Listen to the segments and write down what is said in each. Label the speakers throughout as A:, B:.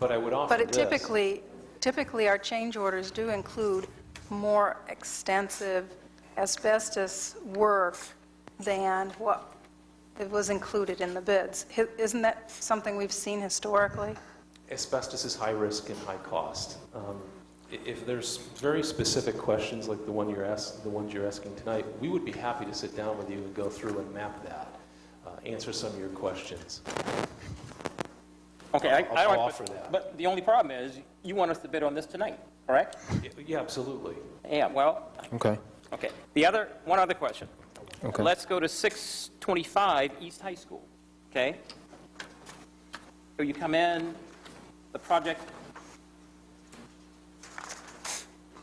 A: But I would offer
B: But
A: this.
B: it typically, typically, our change orders do include more extensive asbestos work than what it was included in the bids. Hi- Isn't that something we've seen historically?
A: Asbestos is high risk and high cost. Um, i- If there's very specific questions like the one you're ask, the ones you're asking tonight, we would be happy to sit down with you and go through and map that, uh, answer some of your questions.
C: Okay, I, I
A: I'll
C: don't
A: offer that.
C: But the only problem is, you want us to bid on this tonight, correct?
A: Y- Yeah, absolutely.
C: Yeah, well,
D: Okay,
C: okay. The other, one other question.
D: Okay.
C: Let's go to 625 East High School, okay? So you come in, the project,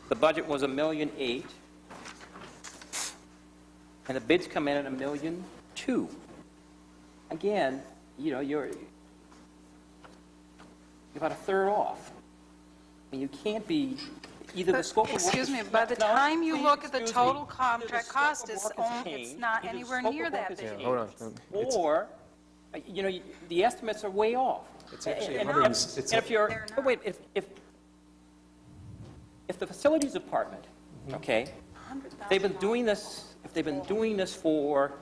C: the budget was a million eight, and the bids come in at a million two. Again, you know, you're you're about a third off. And you can't be, either the
B: But-
C: scope of work...
B: Excuse
C: is-
B: me, by the
C: No,
B: time you
C: please
B: look at the
C: excuse me.
B: total
C: Either the
B: contract
C: scope
B: cost
C: of
B: is
C: work
B: on-
C: changed,
B: it's not
C: either the
B: anywhere
C: scope of
B: near
C: work
B: that
C: is
B: big.
C: changed,
D: hold on. It's-
C: Or, uh, you know, the estimates are way off.
A: It's actually
C: And-
A: 100
C: and
A: it's-
C: if- and if you're,
B: They're
C: but wait, if, if, if the facilities department, okay, they've been doing this, if they've been doing this for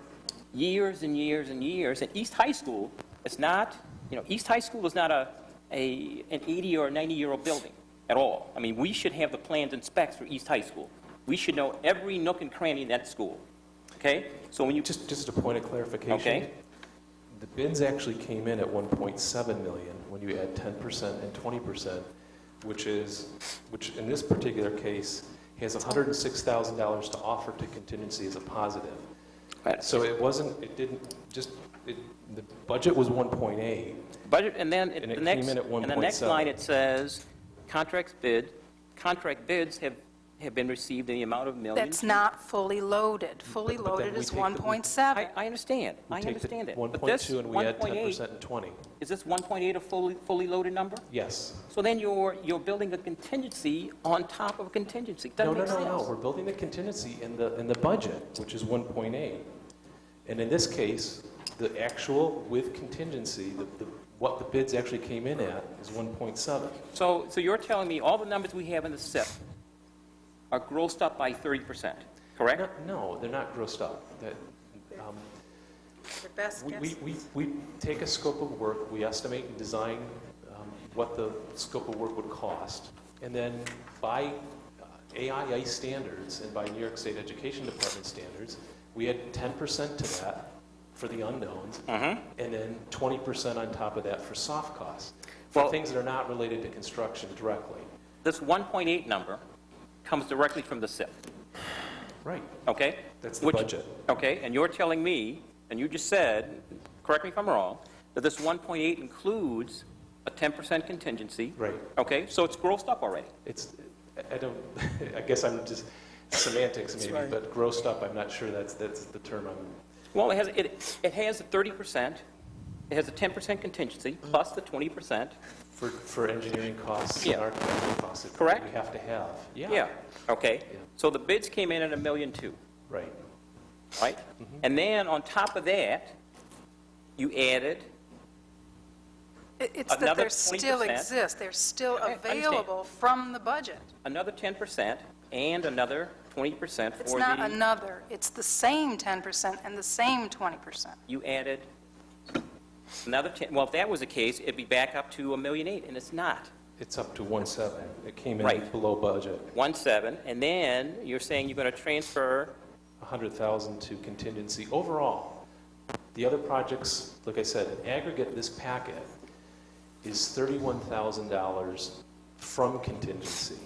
C: years and years and years, and East High School is not, you know, East High School is not a, a, an 80 or 90-year-old building at all. I mean, we should have the plans and specs for East High School. We should know every nook and cranny in that school, okay? So when you,
A: Just, just a point of clarification.
C: Okay.
A: The bids actually came in at 1.7 million when you add 10% and 20%, which is, which in this particular case has $106,000 to offer to contingency as a positive. So it wasn't, it didn't, just, it, the budget was 1.8.
C: Budget, and then,
A: And
C: it-
A: it
C: the next,
A: came in at
C: and the next line,
A: 1.7.
C: it says, contracts bid, contract bids have, have been received in the amount of millions.
B: That's not fully loaded. Fully
A: But- but then
B: loaded
A: we
B: is
A: take the- we-
C: I,
B: 1.7.
C: I understand,
A: We
C: I
A: take the
C: understand that. But this
A: 1.2 and we add 10%
C: 1.8
A: and 20.
C: Is this 1.8 a fully, fully loaded number?
A: Yes.
C: So then you're, you're building a contingency on top of a contingency.
A: No,
C: Doesn't
A: no,
C: make
A: no, no, we're
C: sense.
A: building the contingency in the, in the budget, which is 1.8. And in this case, the actual with contingency, the, the- what the bids actually came in at is 1.7.
C: So, so you're telling me all the numbers we have in the SIP are grossed up by 30%, correct?
A: No, No, they're not grossed up. That, um,
B: Your best
A: we-
B: guess.
A: We, we, we take a scope of work, we estimate and design um, what the scope of work would cost, and then by uh, AIA standards and by New York State Education Department standards, we add 10% to that for the unknowns, and then 20% on top of that for soft costs, for
C: Well-
A: things that are not related to construction directly.
C: This 1.8 number comes directly from the SIP.
A: Right.
C: Okay?
A: That's the
C: Which-
A: budget.
C: Okay, and you're telling me, and you just said, correct me if I'm wrong, that this 1.8 includes a 10% contingency?
A: Right.
C: Okay, so it's grossed up already.
A: It's, I I don't, I guess I'm just semantics maybe, but grossed up, I'm not sure that's, that's the term I'm
C: Well, it has, it, it has a 30%, it has a 10% contingency, plus the 20%.
A: For, for engineering costs and
C: Yeah.
A: architectural costs. that
C: Correct.
A: We have to have.
C: Yeah, okay.
A: Yeah.
C: So the bids came in at a million two,
A: Right.
C: right? And then on top of that, you added,
B: It- It's that
C: Another
B: they still
C: 20%.
B: exist. They're still
C: I understand.
B: available from the budget.
C: another 10% and another 20% for the...
B: It's not another, it's the same 10% and the same 20%.
C: you added another 10, well, if that was the case, it'd be back up to a million eight, and it's not.
A: It's up to one seven. It came in
C: Right.
A: below budget,
C: One seven, and then you're saying you're going to transfer,
A: a hundred thousand to contingency overall. The other projects, like I said, in aggregate, this packet is thirty-one thousand dollars from contingency.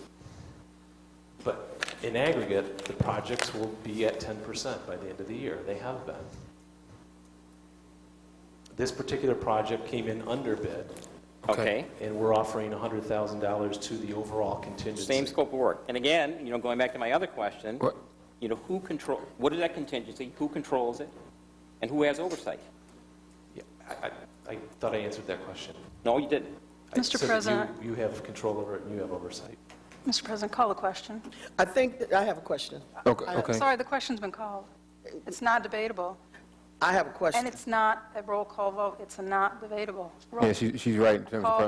A: But in aggregate, the projects will be at ten percent by the end of the year. They have been. This particular project came in under bid.
C: okay,
A: and we're offering $100,000 to the overall contingency.
C: same scope of work. And again, you know, going back to my other question,
D: What?
C: you know, who control, what is that contingency, who controls it, and who has oversight?
A: Yeah, I I- I thought I answered that question.
C: No, you didn't.
A: I said
B: Mr.
A: that you-
B: President.
A: You have control over it and you have oversight.
B: Mr. President, call the question.
E: I think, that I have a question.
D: Okay,
E: I-
D: okay.
B: Sorry, the question's been called. It's not debatable,
E: I have a
B: and
E: question.
B: it's not a roll call vote. It's a not debatable. Roll
D: Yeah, she, she's right in terms of
B: call
D: probably